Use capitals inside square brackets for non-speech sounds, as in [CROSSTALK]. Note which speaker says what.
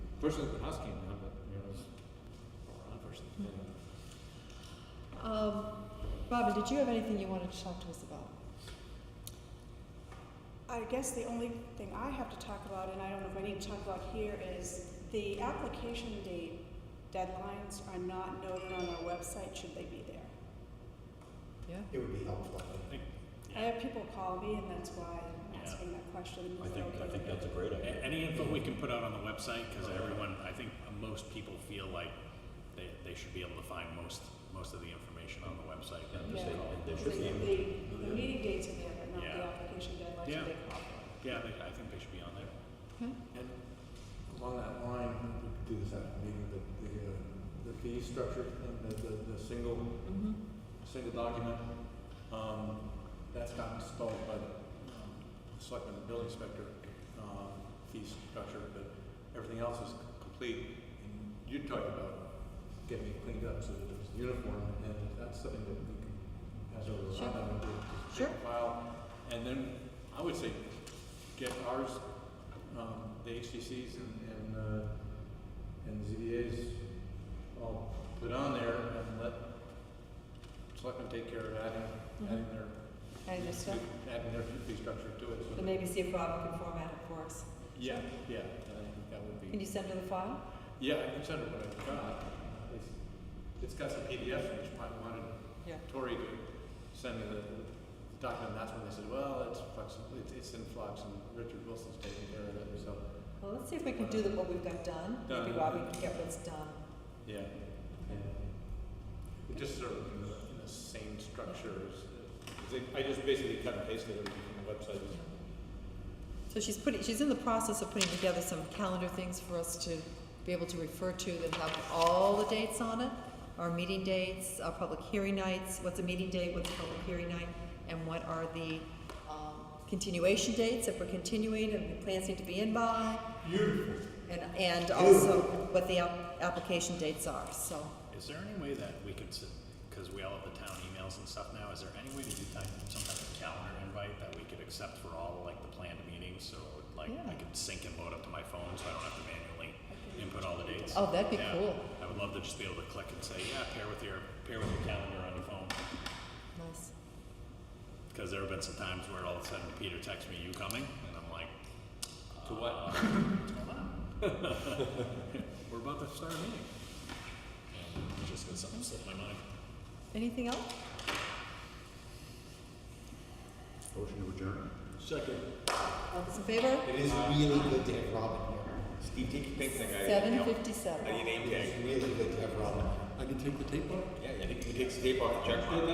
Speaker 1: Personally, when I came down, but, you know, it was around first.
Speaker 2: Um, Bobby, did you have anything you wanted to talk to us about?
Speaker 3: I guess the only thing I have to talk about, and I don't know if I need to talk about here, is the application date deadlines are not noted on our website, should they be there?
Speaker 2: Yeah.
Speaker 4: It would be helpful, I think.
Speaker 3: I have people call me, and that's why I'm
Speaker 5: Yeah.
Speaker 3: asking that question.
Speaker 6: I think, I think that's a great idea.
Speaker 5: A- Any info we can put out on the website, because everyone, I think most people feel like they, they should be able to find most, most of the information on the website.
Speaker 6: Yeah,
Speaker 3: Yeah.
Speaker 6: just say, there
Speaker 3: The,
Speaker 6: should be.
Speaker 3: the, the meeting dates are there, but not the
Speaker 5: Yeah.
Speaker 3: application deadlines,
Speaker 5: Yeah.
Speaker 3: should they call them?
Speaker 5: Yeah, they, I think they should be on there.
Speaker 4: And along that line, we could do this after the meeting, the, the, uh, the fee structure and the, the, the single,
Speaker 2: Mm-hmm.
Speaker 4: single document. Um, that's gotten stalled by the, um, selectmen and building inspector, um, fee structure, but everything else is complete. And you talked about getting it cleaned up so that it's uniform, and that's something that we can, as a,
Speaker 2: Sure.
Speaker 4: I would do.
Speaker 2: Sure.
Speaker 4: File, and then I would say get ours, um, the HTCs and, and, uh, and ZBAs all put on there and let selectmen take care of adding,
Speaker 2: Mm-hmm.
Speaker 4: adding their,
Speaker 2: And just stuff.
Speaker 4: adding their fee structure to it, so.
Speaker 2: And maybe see if Robin can format it for us.
Speaker 4: Yeah, yeah, I think that would
Speaker 2: Can
Speaker 4: be,
Speaker 2: you send her the file?
Speaker 4: yeah, I can send it what I've got. It's, it's got some PDFs, which I wanted
Speaker 2: Yeah.
Speaker 4: Tori to send me the document, that's when they said, well, it's flexible, it's, it's in flux, and Richard Wilson's taking care of it, so,
Speaker 2: Well, let's see if we can do the, what we've got done. Maybe
Speaker 4: Done.
Speaker 2: Bobby can get what's done.
Speaker 4: yeah. It Just sort of in the, in the same structure as, as they- I just basically cut and pasted everything from the website.
Speaker 2: So she's putting, she's in the process of putting together some calendar things for us to be able to refer to that have all the dates on it. Our meeting dates, our public hearing nights, what's a meeting date, what's a public hearing night, and what are the, um, continuation dates, if we're continuing, and the plans need to be in by,
Speaker 4: Beautiful.
Speaker 2: and, and also what the app- application dates are, so.
Speaker 5: Is there any way that we could, because we all have the town emails and stuff now, is there any way to do type, some kind of calendar invite that we could accept for all, like, the planned meetings? So, like,
Speaker 2: Yeah.
Speaker 5: I could sync and load up to my phone, so I don't have to manually input all the dates.
Speaker 2: Oh, that'd be
Speaker 5: Yeah.
Speaker 2: cool.
Speaker 5: I would love to just be able to click and say, yeah, pair with your, pair with your calendar on your phone.
Speaker 2: Nice.
Speaker 5: Because there have been some times where all of a sudden Peter texts me, "You coming?" and I'm like,
Speaker 4: To what?
Speaker 5: "Uh, hold on. [LAUGHS] We're about to start a meeting. And it just because something slipped my mind.
Speaker 2: Anything else?
Speaker 6: Motion to adjourn.
Speaker 4: Second.
Speaker 2: All those in favor?
Speaker 4: It is
Speaker 6: Really good to have Robin here.
Speaker 4: Steve, take your thing, I.
Speaker 2: Seven fifty-seven.
Speaker 6: It's really good to have Robin here.
Speaker 4: I can take the tape off?
Speaker 6: Yeah, I think you can take the tape off, check